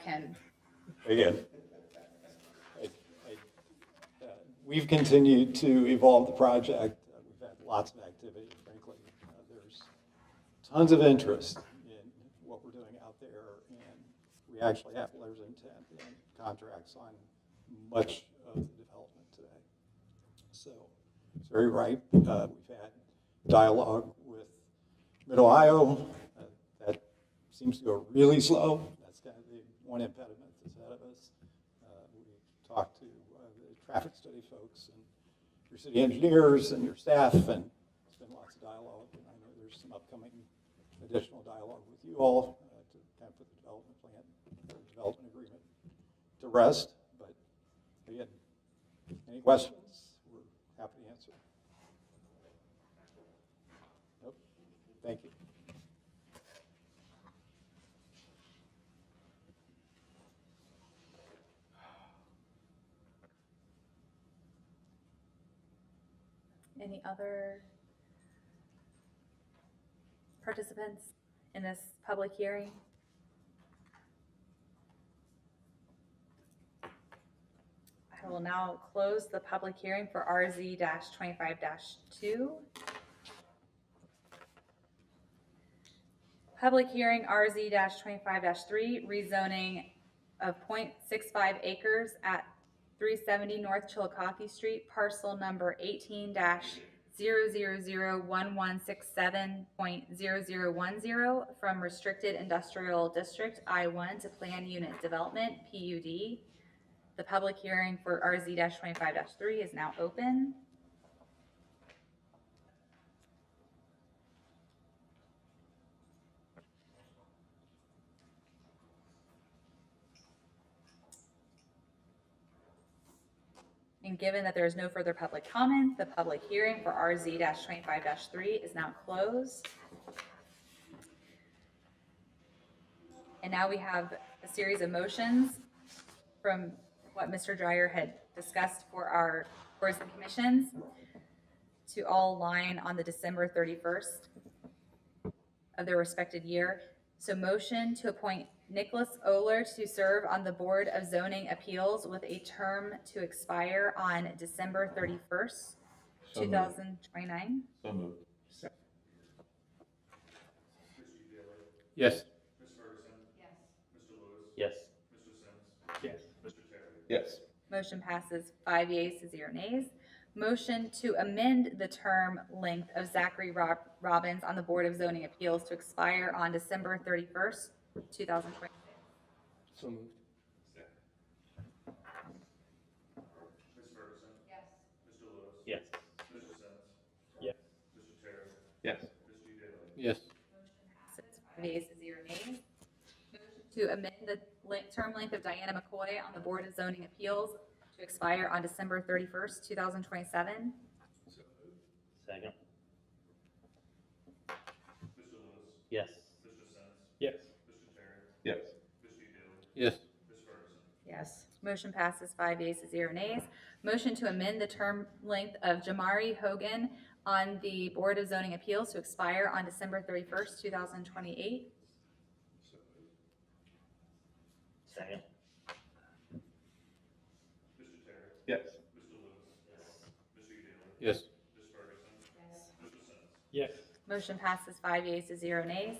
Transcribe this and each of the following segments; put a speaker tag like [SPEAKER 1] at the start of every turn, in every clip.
[SPEAKER 1] can.
[SPEAKER 2] Again,
[SPEAKER 3] We've continued to evolve the project. Uh, We've had lots of activity, frankly. Uh, There's tons of interest in what we're doing out there, and we actually have letters of intent and contracts on much of the development today. So it's very ripe. Uh, We've had dialogue with Mid-Ohio. Uh, That seems to go really slow. That's kind of the one impediment that's ahead of us. Uh, We talked to uh, the traffic study folks and your city engineers and your staff, and it's been lots of dialogue. And I know there's some upcoming additional dialogue with you all uh, to kind of put the development plan, or development agreement to rest. But again, any questions, we're happy to answer. Nope. Thank you.
[SPEAKER 1] Any other participants in this public hearing? I will now close the public hearing for RZ twenty-five two. Public hearing RZ twenty-five three, rezoning of 0.65 acres at three seventy North Chillicothe Street, parcel number eighteen dash zero zero zero one one six seven point zero zero one zero from restricted industrial district I one to plan unit development, PUD. The public hearing for RZ twenty-five three is now open. And given that there is no further public comment, the public hearing for RZ twenty-five three is now closed. And now we have a series of motions from what Mr. Dryer had discussed for our boards and commissions to all line on the December thirty-first of their respected year. So motion to appoint Nicholas Oler to serve on the Board of Zoning Appeals with a term to expire on December thirty-first,
[SPEAKER 2] So
[SPEAKER 1] two
[SPEAKER 2] moved.
[SPEAKER 1] thousand twenty-nine.
[SPEAKER 2] so moved.
[SPEAKER 4] Yes.
[SPEAKER 2] Yes.
[SPEAKER 4] Yes.
[SPEAKER 2] Yes.
[SPEAKER 1] Motion passes five yeas to zero nays. Motion to amend the term length of Zachary Rob- Robbins on the Board of Zoning Appeals to expire on December thirty-first, two thousand twenty.
[SPEAKER 4] So moved. Yes. Yes. Yes.
[SPEAKER 1] Five yeas to zero nays. Motion to amend the le- term length of Diana McCoy on the Board of Zoning Appeals to expire on December thirty-first, two thousand twenty-seven.
[SPEAKER 5] Second. Yes.
[SPEAKER 4] Yes.
[SPEAKER 2] Yes.
[SPEAKER 4] Yes.
[SPEAKER 1] Yes. Motion passes five yeas to zero nays. Motion to amend the term length of Jamari Hogan on the Board of Zoning Appeals to expire on December thirty-first, two thousand twenty-eight.
[SPEAKER 5] Second.
[SPEAKER 2] Yes.
[SPEAKER 4] Yes. Yes.
[SPEAKER 1] Motion passes five yeas to zero nays.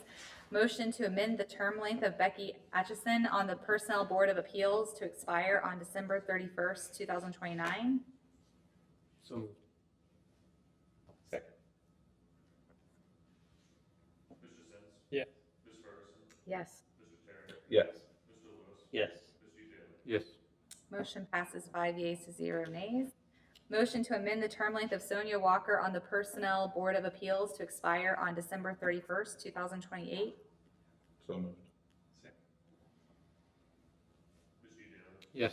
[SPEAKER 1] Motion to amend the term length of Becky Atchison on the Personnel Board of Appeals to expire on December thirty-first, two thousand twenty-nine.
[SPEAKER 4] So moved.
[SPEAKER 2] Second.
[SPEAKER 4] Yes.
[SPEAKER 1] Yes.
[SPEAKER 2] Yes.
[SPEAKER 5] Yes.
[SPEAKER 4] Yes.
[SPEAKER 1] Motion passes five yeas to zero nays. Motion to amend the term length of Sonia Walker on the Personnel Board of Appeals to expire on December thirty-first, two thousand twenty-eight.
[SPEAKER 2] So moved. Yes.
[SPEAKER 4] Yes.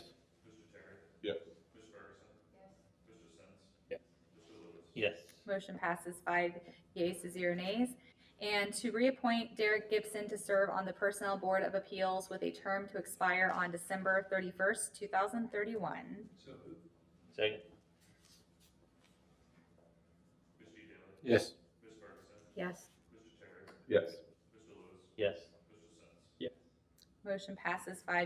[SPEAKER 5] Yes.
[SPEAKER 1] Motion passes five yeas to zero nays. And to reappoint Derek Gibson to serve on the Personnel Board of Appeals with a term to expire on December thirty-first, two thousand thirty-one.
[SPEAKER 5] Second.
[SPEAKER 4] Yes.
[SPEAKER 1] Yes.
[SPEAKER 2] Yes.
[SPEAKER 5] Yes.
[SPEAKER 1] Motion passes five